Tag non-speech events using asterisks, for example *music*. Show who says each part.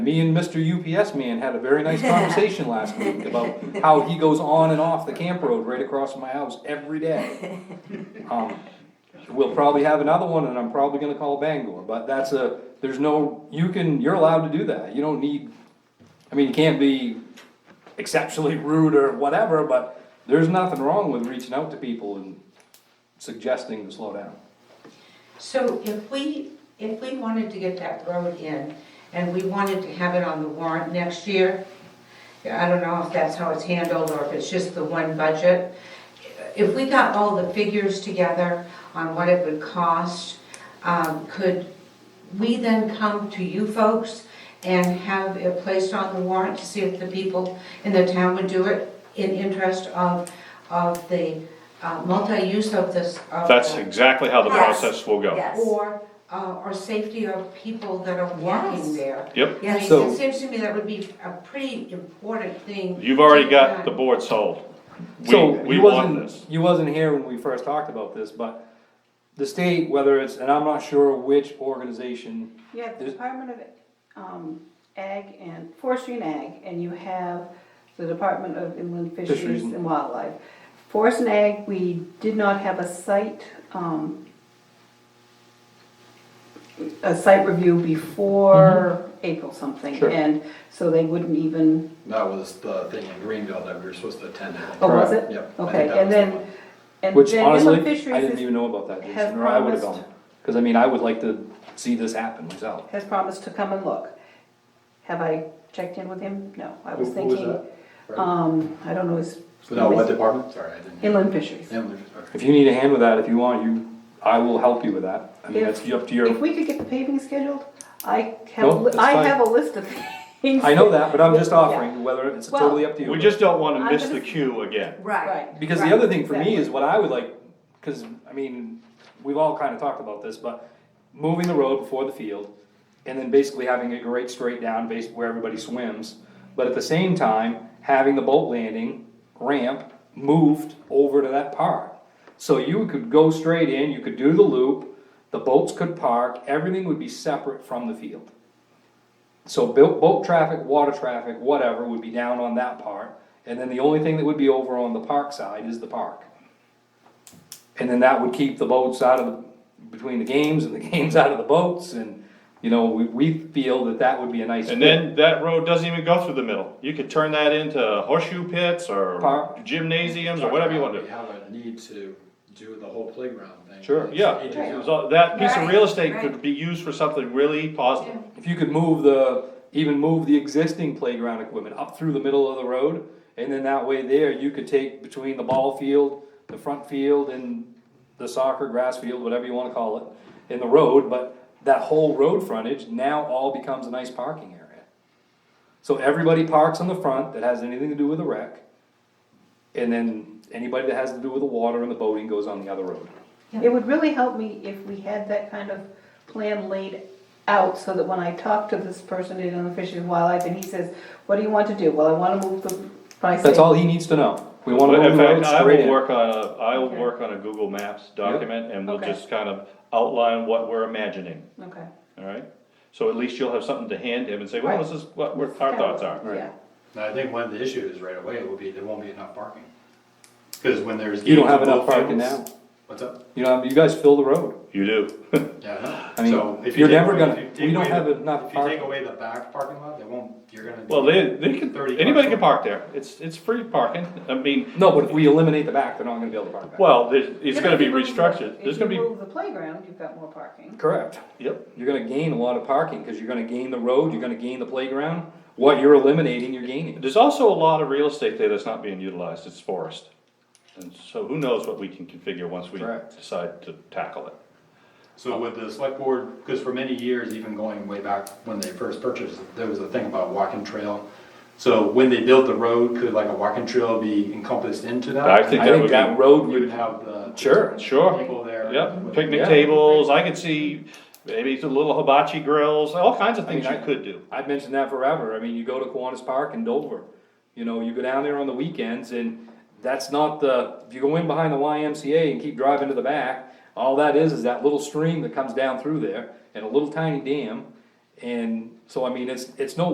Speaker 1: Me and Mr. UPS man had a very nice conversation last week about how he goes on and off the camp road right across from my house every day. Um, We'll probably have another one and I'm probably gonna call Bangor, but that's a, there's no, you can, you're allowed to do that, you don't need, I mean, you can't be exceptionally rude or whatever, but there's nothing wrong with reaching out to people and suggesting to slow down.
Speaker 2: So if we, if we wanted to get that road in, and we wanted to have it on the warrant next year, I don't know if that's how it's handled, or if it's just the one budget. If we got all the figures together on what it would cost, um, could we then come to you folks and have it placed on the warrant to see if the people in the town would do it in interest of, of the uh, multi-use of this? of
Speaker 3: That's
Speaker 2: the-
Speaker 3: exactly how the
Speaker 4: Yes.
Speaker 3: process will go.
Speaker 4: Yes,
Speaker 2: or, uh, or safety of people that are walking
Speaker 4: Yes.
Speaker 2: there.
Speaker 3: Yep,
Speaker 2: I mean,
Speaker 4: yes,
Speaker 1: So-
Speaker 2: it seems to me that would be a pretty important thing.
Speaker 3: you've already
Speaker 2: to
Speaker 3: got the
Speaker 2: have.
Speaker 3: board sold. We,
Speaker 1: So
Speaker 3: we
Speaker 1: you
Speaker 3: want
Speaker 1: wasn't,
Speaker 3: this.
Speaker 1: you wasn't here when we first talked about this, but the state, whether it's, and I'm not sure which organization,
Speaker 5: Yeah, the
Speaker 1: There's-
Speaker 5: Department of um, Ag and Forestry and Ag, and you have the Department of Inland
Speaker 1: Fisheries
Speaker 5: Fisheries
Speaker 1: and-
Speaker 5: and Wildlife. Forest and Ag, we did not have a site, um, a site review before April something.
Speaker 1: Sure.
Speaker 5: And so they wouldn't even,
Speaker 6: That was the thing in Greenville that we were supposed to attend.
Speaker 5: oh, was
Speaker 1: Correct.
Speaker 5: it?
Speaker 6: Yep, I
Speaker 5: Okay,
Speaker 6: think that
Speaker 5: and
Speaker 6: was the
Speaker 5: then,
Speaker 6: one.
Speaker 5: and
Speaker 1: which
Speaker 5: then Inland
Speaker 1: honestly, I
Speaker 5: Fisheries
Speaker 1: didn't even
Speaker 5: is-
Speaker 1: know about that,
Speaker 5: has
Speaker 1: Jason, or I would've
Speaker 5: promised-
Speaker 1: gone. Cause I mean, I would like to see this happen myself.
Speaker 5: has promised to come and look. Have I checked in with him? No, I was
Speaker 6: Who- who was
Speaker 5: thinking,
Speaker 6: that?
Speaker 5: um, I don't know his.
Speaker 6: No, what department? Sorry, I didn't.
Speaker 5: Inland Fisheries.
Speaker 6: Inland, okay.
Speaker 1: If you need a hand with that, if you want, you, I will help you with that. I mean,
Speaker 5: If-
Speaker 1: that's up to
Speaker 5: If
Speaker 1: your,
Speaker 5: we could get the paving scheduled, I
Speaker 1: No,
Speaker 5: have,
Speaker 1: that's
Speaker 5: I
Speaker 1: fine.
Speaker 5: have a list of *laughs* things.
Speaker 1: I know that, but I'm just
Speaker 5: Yeah.
Speaker 1: offering, whether it's
Speaker 5: Well-
Speaker 1: totally up to you.
Speaker 3: We just don't wanna
Speaker 5: I'm
Speaker 3: miss
Speaker 5: gonna-
Speaker 3: the cue again.
Speaker 4: right.
Speaker 5: Right.
Speaker 1: Because the
Speaker 4: Right,
Speaker 1: other thing for me is what I would like, cause I mean, we've all kinda talked about this, but moving the road before the field. And then basically having it grade straight down based where everybody swims, but at the same time, having the boat landing ramp moved over to that part. So you could go straight in, you could do the loop, the boats could park, everything would be separate from the field. So boat, boat traffic, water traffic, whatever, would be down on that part, and then the only thing that would be over on the park side is the park. And then that would keep the boats out of, the- between the games and the *laughs* games out of the boats, and, you know, we, we feel that that would be a nice.
Speaker 3: And then that road doesn't even go through the middle. You could turn that into horseshoe pits or
Speaker 1: Park.
Speaker 3: gymnasiums or whatever you wanna
Speaker 6: We
Speaker 3: do.
Speaker 6: have a need to do the whole playground thing.
Speaker 1: Sure,
Speaker 3: Yeah,
Speaker 6: It is-
Speaker 3: so that piece of
Speaker 4: Right,
Speaker 3: real estate
Speaker 4: right.
Speaker 3: could be used for something really positive.
Speaker 1: If you could move the, even move the existing playground equipment up through the middle of the road, and then that way there, you could take between the ball field, the front field, and the soccer grass field, whatever you wanna call it, in the road, but that whole road frontage now all becomes a nice parking area. So everybody parks on the front that has anything to do with the wreck, and then anybody that has to do with the water and the boating goes on the other road.
Speaker 5: It would really help me if we had that kind of plan laid out so that when I talk to this person in Inland Fisheries and Wildlife and he says, what do you want to do? Well, I want to move the, I say,
Speaker 1: That's all he needs to know. We wanna
Speaker 3: But
Speaker 1: move
Speaker 3: in
Speaker 1: the road
Speaker 3: fact, I
Speaker 1: straight
Speaker 3: will
Speaker 1: in.
Speaker 3: work on a, I will
Speaker 5: Okay.
Speaker 3: work on a Google Maps document and we'll
Speaker 5: Okay.
Speaker 3: just kind of outline what we're imagining,
Speaker 5: Okay.
Speaker 3: alright? So at least you'll have something to hand him and say, well,
Speaker 5: Right.
Speaker 3: this is what we're- our thoughts are.
Speaker 1: Right.
Speaker 5: Yeah.
Speaker 6: And I think one of the issues right away will be there won't be enough parking. Cause when there's.
Speaker 1: You don't
Speaker 6: games
Speaker 1: have
Speaker 6: on
Speaker 1: enough
Speaker 6: both
Speaker 1: parking now.
Speaker 6: fields- What's up?
Speaker 1: You know, you guys fill the road.
Speaker 3: You do.
Speaker 6: Yeah.
Speaker 1: I mean, you're never gonna- we don't have enough
Speaker 6: If you
Speaker 1: parking.
Speaker 6: take away the back parking lot, they won't, you're gonna.
Speaker 3: *laughs* Well, they, they can,
Speaker 6: 30
Speaker 3: anybody
Speaker 6: cars.
Speaker 3: can park there, it's, it's free parking, I mean,
Speaker 1: No, but if we eliminate the back, they're not gonna be able to park back.
Speaker 3: well, there's, it's
Speaker 5: Yeah,
Speaker 3: gonna
Speaker 5: if
Speaker 3: be
Speaker 5: you move the-
Speaker 3: restructured, there's gonna
Speaker 5: If you
Speaker 3: be,
Speaker 5: move the playground, you've got more parking.
Speaker 1: Correct.
Speaker 3: yep,
Speaker 1: You're gonna gain a lot of parking, cause you're gonna gain the road, you're gonna gain the playground. What you're eliminating, you're gaining.
Speaker 3: there's also a lot of real estate there that's not being utilized, it's forest. And so who knows what we can configure once we
Speaker 1: Correct.
Speaker 3: decide to tackle it.
Speaker 6: So with the select board, because for many years, even going way back when they first purchased, there was a thing about walking trail. So when they built the road, could like a walking trail be encompassed into that?
Speaker 3: I think
Speaker 1: I
Speaker 3: that
Speaker 1: think
Speaker 3: would
Speaker 1: that
Speaker 3: be,
Speaker 1: road
Speaker 6: You would
Speaker 1: would,
Speaker 6: have the.
Speaker 1: sure,
Speaker 3: sure,
Speaker 6: People there.
Speaker 3: yep,
Speaker 6: with-
Speaker 3: picnic
Speaker 1: Yeah.
Speaker 3: tables, I could see, maybe the little hibachi grills, all kinds of
Speaker 1: I mean,
Speaker 3: things you
Speaker 1: I-
Speaker 3: could do.
Speaker 1: I've mentioned that forever. I mean, you go to Kiwanis Park in Dover, you know, you go down there on the weekends and that's not the, if you go in behind the YMCA and keep driving to the back, all that is, is that little stream that comes down through there and a little tiny dam. And so, I mean, it's, it's no